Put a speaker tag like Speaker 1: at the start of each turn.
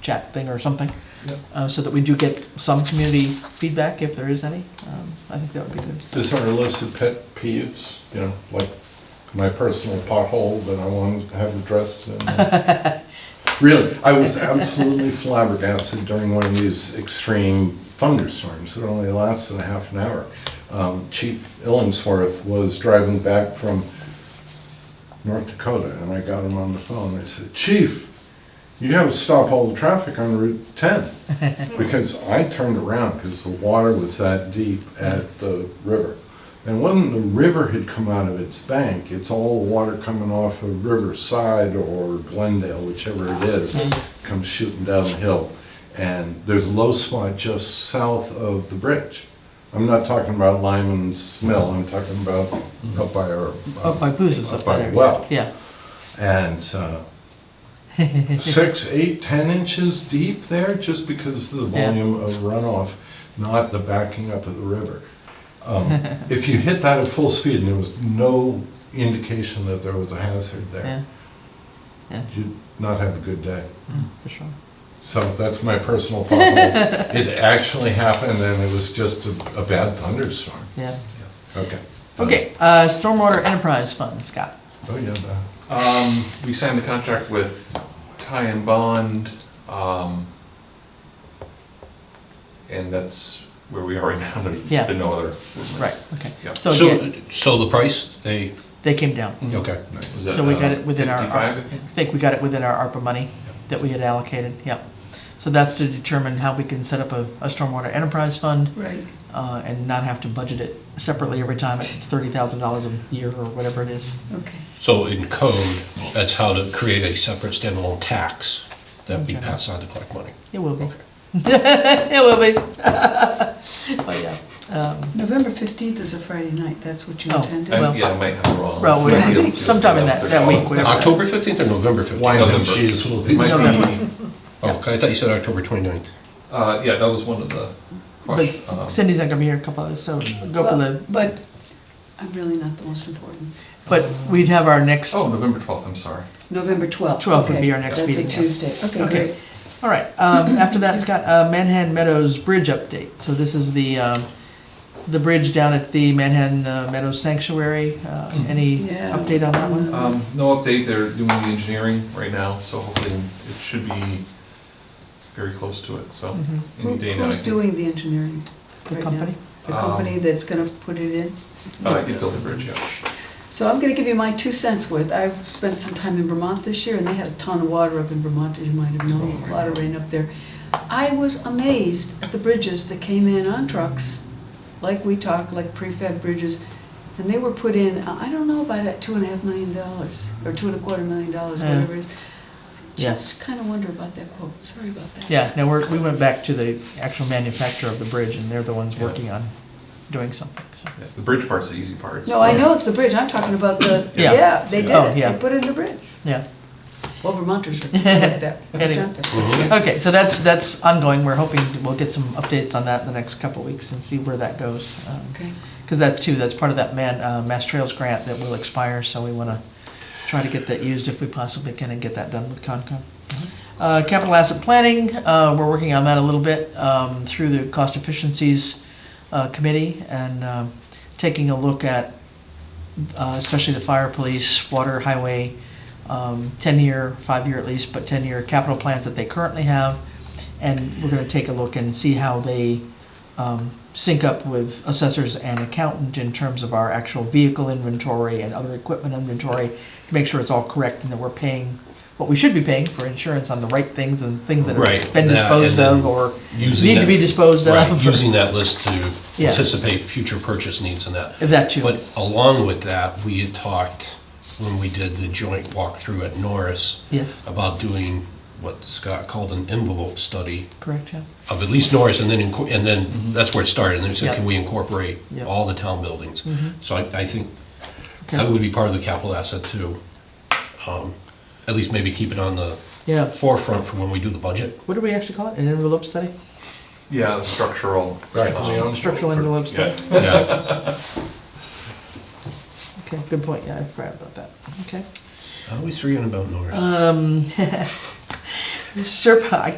Speaker 1: chat thing or something,
Speaker 2: Yep.
Speaker 1: uh, so that we do get some community feedback if there is any. Um, I think that would be good.
Speaker 2: Is there a list of pet peeves, you know, like my personal pothole that I want to have addressed? and- uh, Really, I was absolutely flabbergasted during one of these extreme thunderstorms that only lasted a half an hour. Um, Chief Illingsworth was driving back from North Dakota, and I got him on the phone. I said, Chief, you gotta stop all the traffic on Route 10. Because I turned around because the water was that deep at the river. And when the river had come out of its bank, it's all water coming off of Riverside or Glendale, whichever it is, comes shooting down the hill. And there's a low spot just south of the bridge. I'm not talking about Lyman's Mill, I'm talking about up by our. uh,
Speaker 1: Up by Booz's up
Speaker 2: Up by
Speaker 1: there.
Speaker 2: the well.
Speaker 1: Yeah,
Speaker 2: And uh, six, eight, ten inches deep there, just because of the
Speaker 1: Yeah.
Speaker 2: volume of runoff, not the backing up of the river. Um, If you hit that at full speed, and there was no indication that there was a hazard
Speaker 1: yeah,
Speaker 2: there, you'd not have a good day.
Speaker 1: Mm, for sure.
Speaker 2: So that's my personal pothole. It actually happened, and it was just a a bad thunderstorm.
Speaker 1: Yeah.
Speaker 2: Okay.
Speaker 1: Okay, uh, Stormwater Enterprise Fund, Scott.
Speaker 2: Oh, yeah, that-
Speaker 3: Um, we signed the contract with Ty and Bond, um, and that's where we are right now, there's
Speaker 1: Yeah.
Speaker 3: been no other.
Speaker 1: Right, okay.
Speaker 3: Yeah.
Speaker 1: So Mm-hmm. yeah,
Speaker 4: So, so the price, they,
Speaker 1: they came down.
Speaker 4: okay.
Speaker 3: Was that,
Speaker 1: So we got
Speaker 3: uh,
Speaker 1: it within our-
Speaker 3: 55, I think?
Speaker 1: I think we got it within our ARPA money that we had allocated, yep. So that's to determine how we can set up a, a stormwater enterprise fund
Speaker 5: Right.
Speaker 1: uh, and not have to budget it separately every time at thirty thousand dollars a year or whatever it is.
Speaker 5: Okay.
Speaker 4: So in code, that's how to create a separate standalone tax that we pass on to collect money.
Speaker 1: It will be. It will be. But yeah,
Speaker 5: November 15th is a Friday night, that's what you
Speaker 1: Oh.
Speaker 5: intended?
Speaker 1: Well-
Speaker 3: I- Yeah, I might have it wrong.
Speaker 1: well, we- sometime in that, that week, whatever. that-
Speaker 4: October 15th or November 15th?
Speaker 2: Wine and
Speaker 3: November.
Speaker 2: cheese will
Speaker 3: It
Speaker 2: be.
Speaker 3: might be,
Speaker 4: Oh, okay, I thought you said October 29th.
Speaker 3: uh, yeah, that was one of the questions. um,
Speaker 1: But Cindy's not gonna be here a couple others, so go for the,
Speaker 5: But I'm really not the most important.
Speaker 1: but we'd have our next, all
Speaker 3: Oh, November 12th, I'm sorry.
Speaker 5: November 12th.
Speaker 1: 12th would
Speaker 5: okay.
Speaker 1: be our next meeting,
Speaker 5: That's
Speaker 1: yeah.
Speaker 5: a Tuesday, okay,
Speaker 1: Okay.
Speaker 5: great.
Speaker 1: right. um, After that, Scott, uh, Manhattan Meadows Bridge update. So this is the, um, the bridge down at the Manhattan uh, Meadows Sanctuary. Uh, Any
Speaker 5: Mm-hmm. Yeah,
Speaker 1: update on that one?
Speaker 3: Um, no update, they're doing the engineering right now, so hopefully it should be very close to it, so
Speaker 1: Mhm.
Speaker 3: any
Speaker 5: Mm. Who-
Speaker 3: day now. I
Speaker 5: Who's
Speaker 3: think.
Speaker 5: doing the engineering?
Speaker 1: The
Speaker 5: right
Speaker 1: company?
Speaker 5: now? The company
Speaker 3: Um,
Speaker 5: that's gonna put it in?
Speaker 3: Uh, I could build a bridge, yeah.
Speaker 5: So I'm gonna give you my two cents worth. I've spent some time in Vermont this year, and they had a ton of water up in Vermont, as you might have known, a lot of rain up there. I was amazed at the bridges that came in on trucks, like we talk, like prefab bridges, and they were put in, I I don't know about that two and a half million dollars, or two and a quarter million dollars,
Speaker 1: Yeah.
Speaker 5: whatever it is.
Speaker 1: Yeah.
Speaker 5: Just kinda wonder about that quote, sorry about that.
Speaker 1: Yeah, no, we're, we went back to the actual manufacturer of the bridge and they're the ones working on doing something, so.
Speaker 3: Yeah, The bridge part's the easy part.
Speaker 5: No, I know it's the bridge, I'm talking about the,
Speaker 1: Yeah.
Speaker 5: yeah, they did
Speaker 1: Oh,
Speaker 5: it,
Speaker 1: yeah.
Speaker 5: they put in the bridge.
Speaker 1: Yeah,
Speaker 5: Well, Vermonters are like that.
Speaker 1: Anyway.
Speaker 5: Jumping.
Speaker 1: okay, so that's, that's ongoing. We're hoping we'll get some updates on that in the next couple of weeks and see where that goes.
Speaker 5: Okay.
Speaker 1: Because that's too, that's part of that man, uh, Mass Trails grant that will expire, so we want to try to get that used if we possibly can and get that done with Concom. Uh, Capital asset planning, uh, we're working on that a little bit um, through the cost efficiencies uh, committee and um, taking a look at uh, especially the fire, police, water, highway, um, 10-year, five-year at least, but 10-year capital plans that they currently have. And we're going to take a look and see how they um, sync up with assessors and accountant in terms of our actual vehicle inventory and other equipment inventory to make sure it's all correct and that we're paying what we should be paying for insurance on the right things and things that
Speaker 4: Right,
Speaker 1: have been
Speaker 4: that
Speaker 1: disposed
Speaker 4: and
Speaker 1: of or
Speaker 4: using
Speaker 1: need to
Speaker 4: that-
Speaker 1: be disposed of.
Speaker 4: Right, using that list to
Speaker 1: Yeah.
Speaker 4: anticipate future purchase needs and that.
Speaker 1: That too.
Speaker 4: But along with that, we had talked, when we did the joint walkthrough at Norris,
Speaker 1: Yes,
Speaker 4: about doing what Scott called an envelope study
Speaker 1: correct, yeah.
Speaker 4: of at least Norris, and then, inco- and then, that's where it started, and then we
Speaker 1: Yeah.
Speaker 4: said, can we incorporate
Speaker 1: Yeah.
Speaker 4: all the town buildings? So I, I think that
Speaker 1: Okay.
Speaker 4: would be part of the capital asset too. Um, At least maybe keep it on the
Speaker 1: Yeah,
Speaker 4: forefront for when we do the budget.
Speaker 1: what do we actually call it? An envelope study?
Speaker 3: Yeah, the structural.
Speaker 2: Right.
Speaker 3: um,
Speaker 1: Structural envelope study?
Speaker 3: Yeah.
Speaker 4: Yeah.
Speaker 1: Okay, good point, yeah, I forgot about that, okay.
Speaker 4: Always forgetting about Norris.
Speaker 1: Um, Serpa, I